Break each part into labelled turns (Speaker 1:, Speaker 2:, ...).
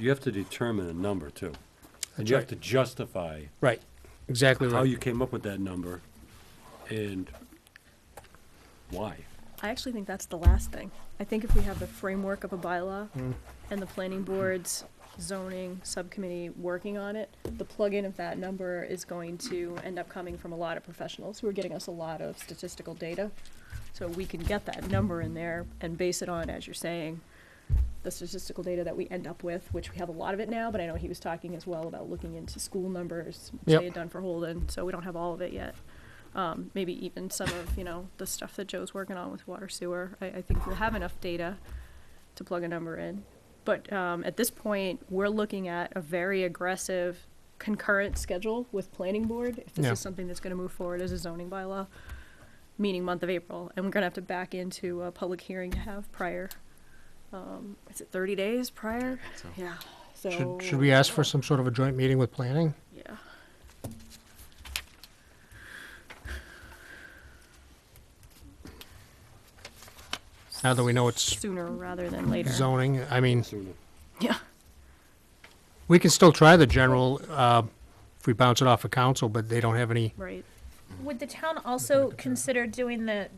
Speaker 1: You have to determine a number too. And
Speaker 2: That's
Speaker 1: you have
Speaker 2: right.
Speaker 1: to justify
Speaker 2: Right, exactly
Speaker 1: how
Speaker 2: right.
Speaker 1: you came up with that number and why.
Speaker 3: I actually think that's the last thing. I think if we have the framework of a bylaw and the planning board's zoning subcommittee working on it, the plug-in of that number is going to end up coming from a lot of professionals who are getting us a lot of statistical data. So we can get that number in there and base it on, as you're saying, the statistical data that we end up with, which we have a lot of it now, but I know he was talking as well about looking into school numbers, which
Speaker 2: Yep.
Speaker 3: they had done for Holden, so we don't have all of it yet um, maybe even some of, you know, the stuff that Joe's working on with water sewer. I, I think we'll have enough data to plug a number in. But um, at this point, we're looking at a very aggressive concurrent schedule with planning board. If this
Speaker 2: Yeah.
Speaker 3: is something that's going to move forward as a zoning bylaw, meaning month of April, and we're going to have to back into a public hearing to have prior. Um, is it 30 days prior? Yeah. So
Speaker 2: Should, should we ask for some sort of a joint meeting with planning?
Speaker 3: Yeah.
Speaker 2: Now that we know it's
Speaker 3: sooner rather than later.
Speaker 2: zoning, I mean,
Speaker 1: Sooner.
Speaker 3: Yeah.
Speaker 2: we can still try the general, uh, if we bounce it off of council, but they don't have any,
Speaker 3: Right.
Speaker 4: Would the town also consider doing the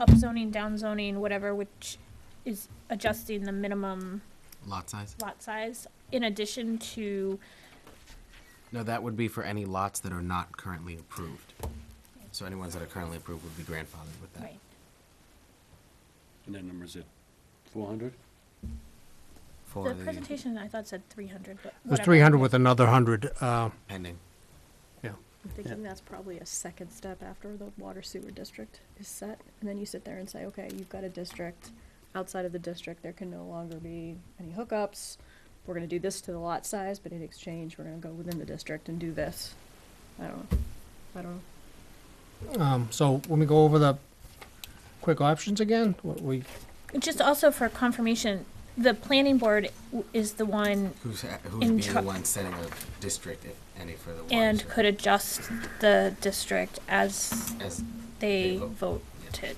Speaker 4: upzoning, downzoning, whatever, which is adjusting the minimum
Speaker 5: Lot size?
Speaker 4: lot size in addition to,
Speaker 5: No, that would be for any lots that are not currently approved. So any ones that are currently approved would be grandfathered with that.
Speaker 4: right,
Speaker 1: And that number's at four hundred?
Speaker 5: For
Speaker 4: the
Speaker 5: the
Speaker 4: presentation I thought said three hundred, but
Speaker 2: it was
Speaker 4: whatever.
Speaker 2: three hundred with another hundred, uh,
Speaker 5: pending.
Speaker 2: yeah.
Speaker 3: I'm thinking that's probably a second step after the water sewer district is set, and then you sit there and say, okay, you've got a district. Outside of the district, there can no longer be any hookups. We're gonna do this to the lot size, but in exchange, we're gonna go within the district and do this. I don't know. I don't know.
Speaker 2: Um, so when we go over the quick options again, what we,
Speaker 4: Just also for confirmation, the planning board w- is the one
Speaker 5: Who's, a- who's
Speaker 4: In
Speaker 5: being the
Speaker 4: char-
Speaker 5: one setting a district, if any, for the water?
Speaker 4: and
Speaker 5: sewer?
Speaker 4: could adjust the district as
Speaker 5: As,
Speaker 4: they
Speaker 5: They vote,
Speaker 4: voted.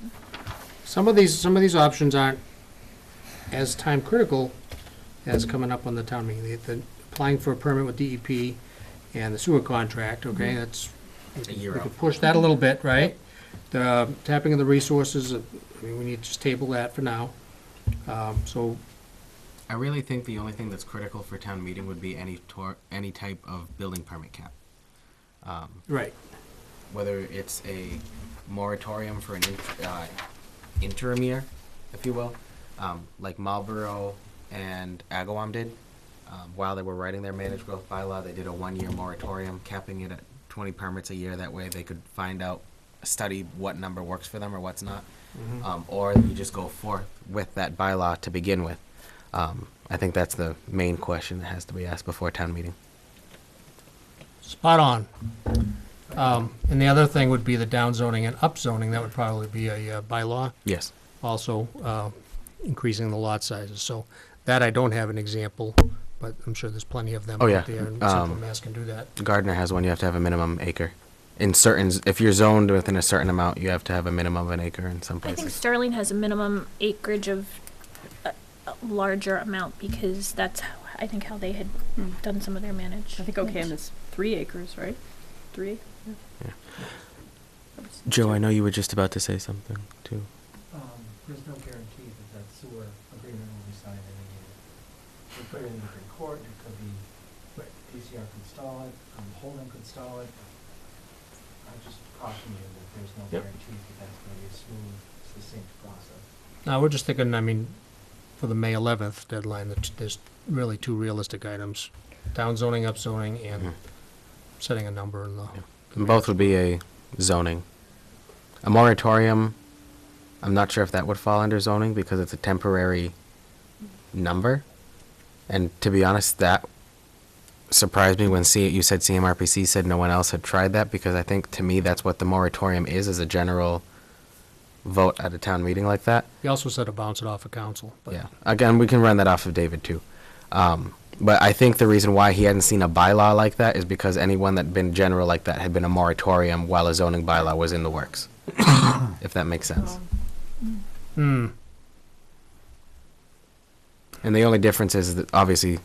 Speaker 2: some of these, some of these options aren't as time critical as coming up on the town meeting. The- The, applying for a permit with DEP and the sewer contract, okay, that's
Speaker 5: Mm-hmm. a
Speaker 2: We
Speaker 5: year out.
Speaker 2: could push that a little bit, right? The tapping of the resources, uh, I mean, we need to just table that for now. Um, So,
Speaker 5: I really think the only thing that's critical for town meeting would be any tor, any type of building permit cap.
Speaker 2: right,
Speaker 5: whether it's a moratorium for an in, uh, interim year, if you will, um, like Marlboro and Agawam did. Um, while they were writing their managed growth bylaw, they did a one-year moratorium, capping it at 20 permits a year. That way, they could find out, study what number works for them or what's not, um, or you just go forth with that bylaw to begin with. Um, I think that's the main question that has to be asked before town meeting.
Speaker 2: spot on. Um, And the other thing would be the downzoning and upzoning, that would probably be a uh, bylaw,
Speaker 5: Yes.
Speaker 2: also uh, increasing the lot sizes. So that I don't have an example, but I'm sure there's plenty of them
Speaker 5: Oh, yeah.
Speaker 2: out there, and Central
Speaker 5: Um,
Speaker 2: Mass can do that.
Speaker 5: Gardner has one. You have to have a minimum acre. In certain, if you're zoned within a certain amount, you have to have a minimum of an acre in some
Speaker 4: I think
Speaker 5: places.
Speaker 4: Sterling has a minimum acreage of a, a larger amount because that's how, I think how they had done some of their manage.
Speaker 3: I think OCAM is three acres, right? Three?
Speaker 5: Yeah.
Speaker 3: That was-
Speaker 5: Joe, I know you were just about to say something too.
Speaker 6: Um, there's no guarantee that that sewer agreement will be signed in a year. We put it in different court, it could be, but DCR could stall it, um, Holden could stall it. I just caution you that there's no
Speaker 2: Yep.
Speaker 6: guarantee that that's gonna be a smooth, succinct process.
Speaker 2: No, we're just thinking, I mean, for the May 11th deadline, that there's really two realistic items, downzoning, upzoning, and
Speaker 5: Mhm.
Speaker 2: setting a number in the.
Speaker 5: And both would be a zoning. A moratorium. I'm not sure if that would fall under zoning because it's a temporary number. And to be honest, that surprised me when C- you said CMRPC said no one else had tried that because I think to me that's what the moratorium is is a general vote at a town meeting like that.
Speaker 2: He also said to bounce it off of council. but-
Speaker 5: Yeah. Again, we can run that off of David too. Um, but I think the reason why he hadn't seen a bylaw like that is because anyone that been general like that had been a moratorium while a zoning bylaw was in the works. if that makes sense.
Speaker 3: Um,
Speaker 2: Hmm,
Speaker 5: And the only difference is that obviously